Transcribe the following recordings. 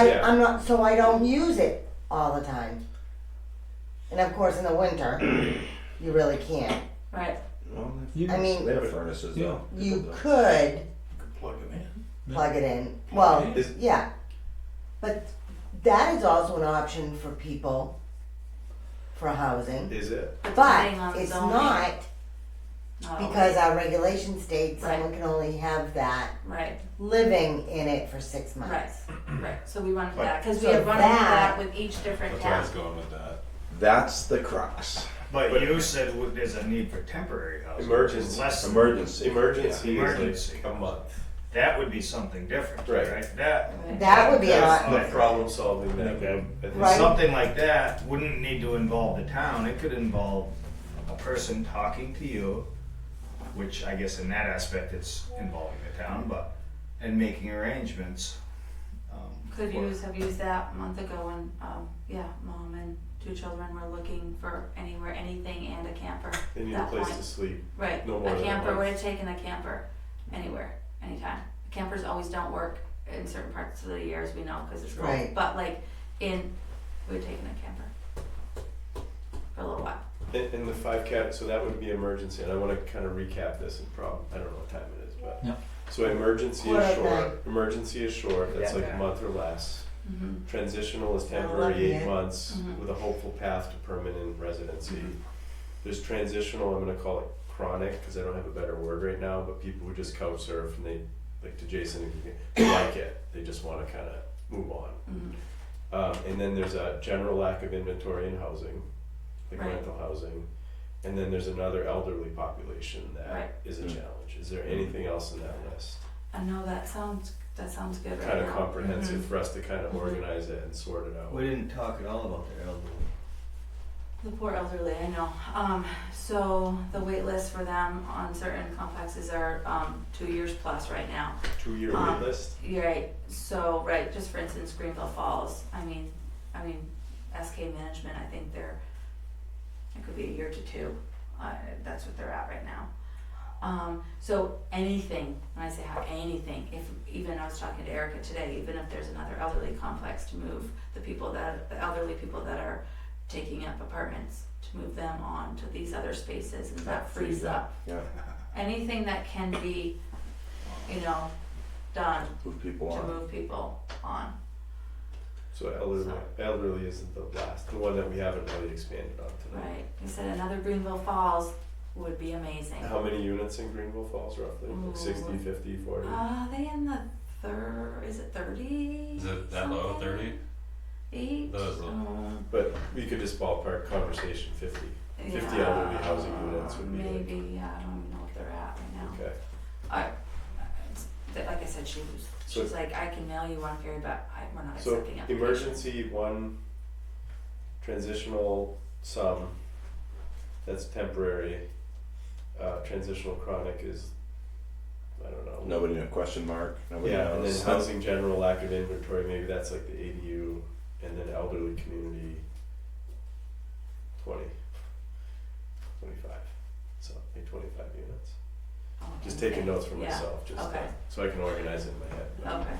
I, Yeah. I'm not, so I don't use it all the time. And of course, in the winter, you really can't. Right. Well, they- You, I mean, they have furnaces though. you could plug them in. plug it in. Well, Is- yeah, but that is also an option for people for housing. Is it? Depending But on it's zoning. not Not because our regulation states Right. someone can only have that always. Oh, Right, living in it for six right, months. right. So we wanted But- that, because we So had run into that- that with each different That's where I town. was going with that. That's the crux. But you said w- there's a need for temporary housing. Emergency. Less than- emergency. Emergency Yeah, is emergency. like a month. That would be something different, Right. right? That, That would be a That's lot. the problem solving that. Okay. we- I think Right. something like that wouldn't need to involve the town. It could involve a person talking to you, which I guess in that aspect, it's involving the town, but, and making arrangements. um, Could for- use, have used that a month ago when, um, yeah, mom and two children were looking for anywhere, anything and a camper. They need a that place point. to sleep. Right, no more a than a camper, month. would have taken a camper anywhere, anytime. Campers always don't work in certain parts of the year as we know, cause it's cold, Right. but like in, we would have taken a camper. For a little while. And, and the five cat, so that would be emergency, and I wanna kinda recap this and prob, I don't know what time it is, but. Yeah. So emergency Quarter is of short, nine. emergency is short, that's like a month or less. Mm-hmm. Transitional is I love temporary, eight it. months, Mhm. with a hopeful path to permanent residency. Mhm. There's transitional, I'm gonna call it chronic, cause I don't have a better word right now, but people who just couch surf and they, like to Jason, they like it, they just wanna kinda move on. Mhm. Um, and then there's a general lack of inventory in housing, like Right. rental housing. And then there's another elderly population Right. that is a challenge. Is there anything else in that list? I know that sounds, that sounds good right now. Kind of comprehensive Mhm. for us to kind of Mhm. organize it and sort it out. We didn't talk at all about the elderly. Mm-hmm. The poor elderly, I know. Um, so the wait list for them on certain complexes are, um, two years plus right now. Two-year Um, wait list? You're right, so, right, just for instance, Greenville Falls, I mean, I mean, SK Management, I think they're, it could be a year to two, uh, that's what they're at right now. Um, so anything, when I say how, anything, if, even I was talking to Erica today, even if there's another elderly complex to move, the people that, the elderly people that are taking up apartments, to move them on to these other spaces, and that frees up. Yeah. Anything that can be, you know, done Move people to on. move people on. So elderly, elderly isn't the last, the one that we haven't really expanded on tonight. Right. He said another Greenville Falls would be amazing. How many units in Greenville Falls roughly? Ooh. Like 60, 50, 40? Uh, they in the third, is it 30? Is it that low, something? 30? Eight? That is low. Um, But we could just ballpark conversation fifty. Fifty yeah, elderly housing units would be like, Maybe, yeah, I don't even know what they're at right now. okay. It's- that- Like I said, she was, So- she's like, I can mail you one, Gary, but I, we're not So accepting applications. emergency one, transitional some, that's temporary. Uh, transitional chronic is, I don't know. Nobody knew, question mark, nobody Yeah, and then knows. housing general lack of inventory, maybe that's like the ADU, and then elderly community. Twenty. Twenty-five, so maybe twenty-five units. Oh, Just okay. taking notes for Yeah. myself, just okay. uh, so I can organize it in my head. Okay,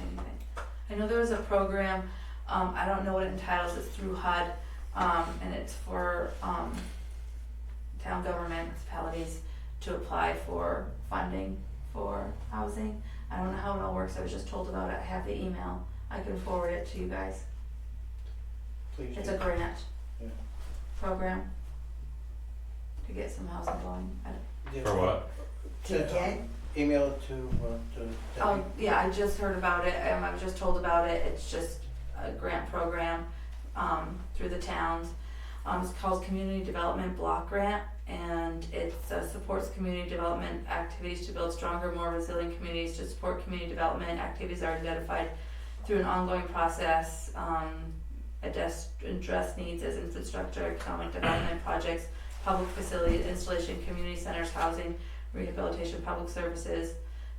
anything. Um, I know there was a program, um, I don't know what it entitles, it's through HUD, um, and it's for, um, town government, municipalities to apply for funding for housing. I don't know how it all works, I was just told about it, I have the email, I can forward it to you guys. Please It's a grant Yeah. program to get some housing going. I don't- For what? TK? Email it to, uh, to Oh, Debbie. yeah, I just heard about it, um, I was just told about it, it's just a grant program, um, through the towns. Um, it's called Community Development Block Grant, and it uh, supports community development activities to build stronger, more resilient communities, to support community development activities are identified through an ongoing process, um, address, address needs as infrastructure, economic development projects, public facilities, installation, community centers, housing, rehabilitation, public services,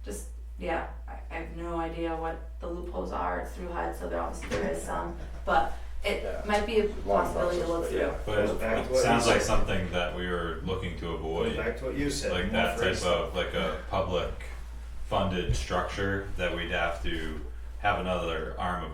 just, yeah, I, I have no idea what the loopholes are, it's through HUD, so there obviously there is some, but it Yeah. might be a Long possibility to process, look but through. yeah. But it- Back to it what sounds you like said. something that we were looking to Goes avoid, back to what you said. like more that phrase. type of, like a public funded structure that we'd have to have another arm of